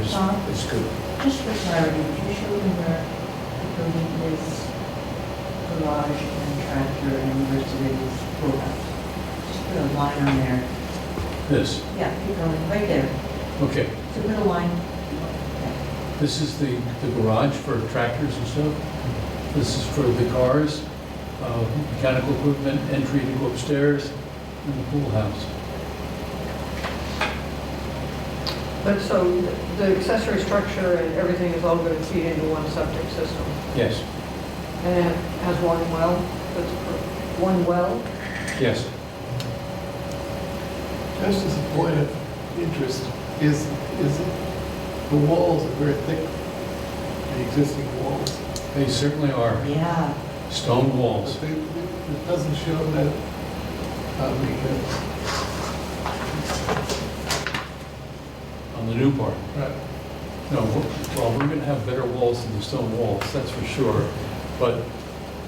it's, Huh? it's good. Just for clarity, did you show me where the building is garage and tractor and university is schoolhouse? Just put a line on there. This, Yeah, keep going, right there. okay, So put a line. this is the, the garage for tractors and stuff. This is for the cars, uh, mechanical equipment, entry to go upstairs, and the pool house. But so the accessory structure and everything is all going to feed into one septic system. Yes, And it has one well, that's, per- one well? yes. Just as a point of interest, is, is the walls are very thick, the existing walls. They certainly are. Yeah. Stone But walls. they- It doesn't show that, I mean, uh, on the new part. right, No, we're- well, we're gonna have better walls than the stone walls, that's for sure. But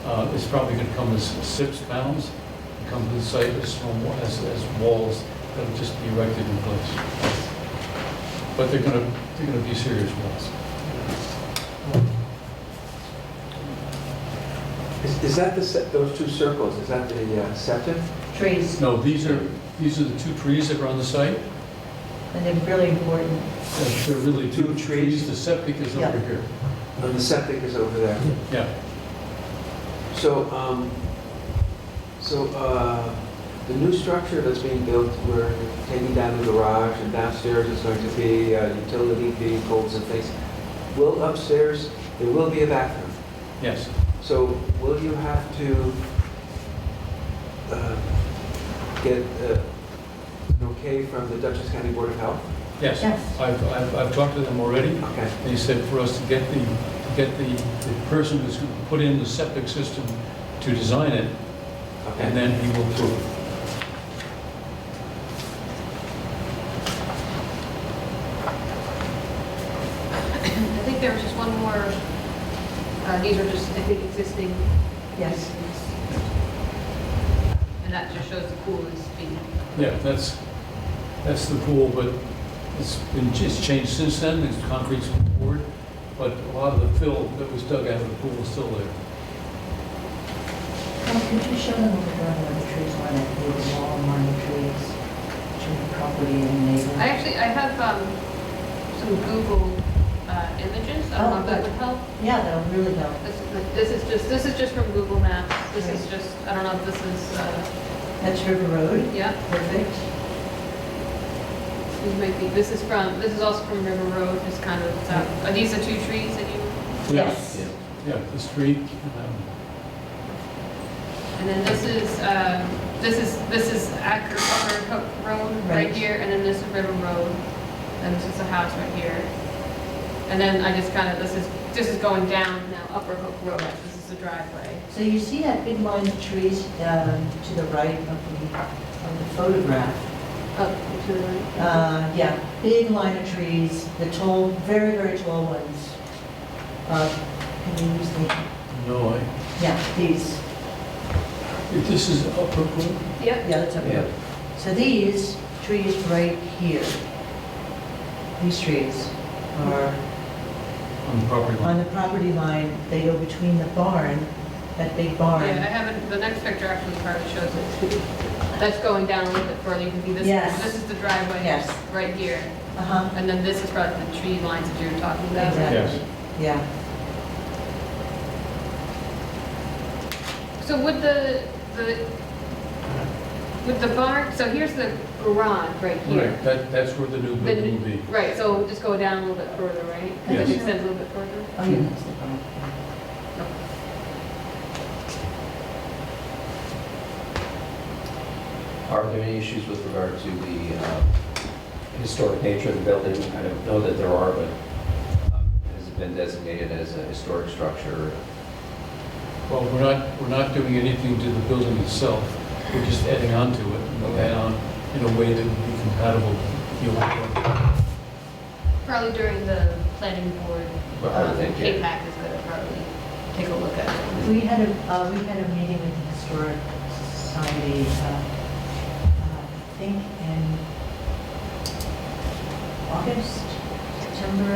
uh, it's probably gonna come as six pounds, come to the site as stone wa- as, as walls that'll just be erected in place. But they're gonna, they're gonna be serious walls. Is is that the, se- those two circles, is that the uh, septic? Trees, No, these are, these are the two trees that are on the site. and they're really important. Uh, They're really two Two trees. trees, the septic is over Yeah. here. And the septic is over there. Yeah, So, um, so uh, the new structure that's being built, we're taking down the garage and downstairs is going to be uh, utility vehicles and things. Will upstairs, there will be a bathroom. yes. So will you have to uh, get uh, an okay from the Dutchess County Board of Health? Yes, Yes. I've, I've, I've talked to them already. Okay. They said for us to get the, to get the, the person who's going to put in the septic system to design it, and Okay. then he will approve. it. I think there was just one more, uh, these are just, I think, existing. Yes. And that just shows the pool is being, Yeah, that's, that's the pool, but it's been, it's changed since then, it's concrete's been poured, but a lot of the fill that was dug out of the pool is still there. Tom, could you show them what the ground where the trees are, that they were all line trees to the property and neighbor? I actually, I have um, some Google uh, images, I don't know if that would help. Yeah, that'll really help. This is, this is just, this is just from Google Maps, this is just, I don't know if this is, uh, That's River Road, yeah, perfect. this might be, this is from, this is also from River Road, it's kind of, uh, are these the two trees that you, Yeah, Yes. Yeah, the street, and um, that one. and then this is, um, this is, this is Acker Upper Hook Road Right. right here, and then this is River Road, and this is a house right here. And then I just kind of, this is, this is going down now, Upper Hook Road, this is the driveway. So you see that big line of trees um, to the right of the, of the photograph? Up to the right. Uh, Yeah, big line of trees, the tall, very, very tall ones. Uh, Can you use the, No, I, yeah, these, if this is upper pool, Yep, yeah, that's up Yeah. there. So these trees right here, these trees are on the property on line. the property line, they go between the barn, that big yeah, I barn. haven't, the next picture actually probably shows it. That's going down a little bit further, you can see Yes. this, this is the driveway. Yes. Right here, Uh-huh, and then this is probably the tree lines that you were talking about. Exactly. Yes. yeah. So would the, the, would the barn, so here's the garage right here. Right, that, that's where the new The- building will be. Right, so just go down a little bit further, right? Yes. Does it extend a little bit further? Oh, yeah, that's the barn. Are there any issues with regard to the uh, historic nature of the building? I don't know that there are, but um, has it been designated as a historic structure? Well, we're not, we're not doing anything to the building itself, we're just adding on to it, and we'll add on in a way that would be compatible with the old one. Probably during the planning board, Well, I would think, yeah. K-PAC is gonna probably take a look at it. We had a, uh, we had a meeting with the historic society, uh, uh, I think in August, September,